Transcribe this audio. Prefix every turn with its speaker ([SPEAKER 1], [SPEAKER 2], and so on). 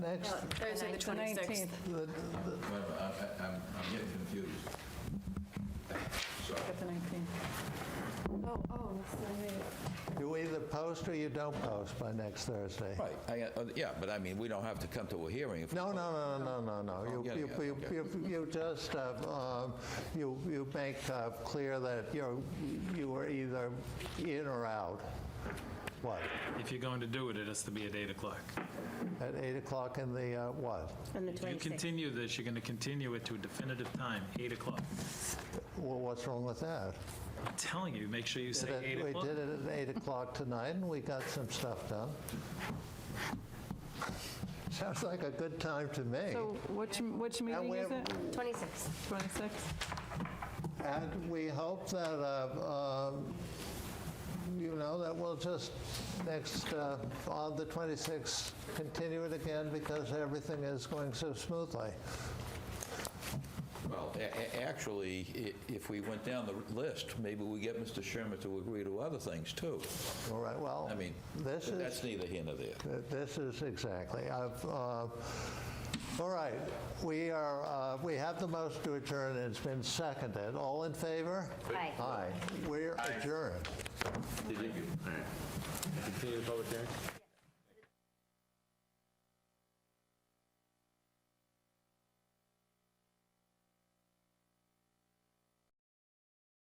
[SPEAKER 1] Next,
[SPEAKER 2] Thursday, the 26th.
[SPEAKER 1] the-
[SPEAKER 3] Wait a minute, I- I- I'm I'm getting confused. Sorry.
[SPEAKER 2] Got the 19th.
[SPEAKER 4] Oh, oh, that's the night.
[SPEAKER 1] you either post or you don't post by next Thursday.
[SPEAKER 3] Right, I, uh, yeah, but I mean, we don't have to come to a hearing if...
[SPEAKER 1] No, no, no, no, no, no, no. You-
[SPEAKER 3] yeah,
[SPEAKER 1] You
[SPEAKER 3] yeah,
[SPEAKER 1] you-
[SPEAKER 3] okay.
[SPEAKER 1] you- you just, uh, um, you you make uh, clear that you're, you are either in or out. What?
[SPEAKER 5] If you're going to do it, it has to be at 8 o'clock.
[SPEAKER 1] At 8 o'clock in the, uh, what?
[SPEAKER 6] On the
[SPEAKER 5] If you
[SPEAKER 6] 26th.
[SPEAKER 5] continue this, you're going to continue it to a definitive time, 8 o'clock.
[SPEAKER 1] Wha- What's wrong with that?
[SPEAKER 5] I'm telling you, make sure you say
[SPEAKER 1] That
[SPEAKER 5] 8 o'clock.
[SPEAKER 1] We did it at 8 o'clock tonight, and we got some stuff done. Sounds like a good time to me.
[SPEAKER 2] So which, which meeting is
[SPEAKER 1] we're-
[SPEAKER 2] it?
[SPEAKER 4] 26.
[SPEAKER 2] 26?
[SPEAKER 1] And we hope that, uh, um, you know, that we'll just next, uh, on the 26th, continue it again because everything is going so smoothly.
[SPEAKER 3] Well, a- a- actually, i- if we went down the list, maybe we get Mr. Sherman to agree to other things, too.
[SPEAKER 1] All right, well,
[SPEAKER 3] I mean,
[SPEAKER 1] this is...
[SPEAKER 3] that's neither here nor there.
[SPEAKER 1] Th- This is exactly. I've, uh, All right, we are, uh, we have the motion to adjourn, and it's been seconded. All in favor?
[SPEAKER 4] Aye.
[SPEAKER 1] Aye. We're adjourned.
[SPEAKER 3] Did you-
[SPEAKER 7] Continue the public hearing?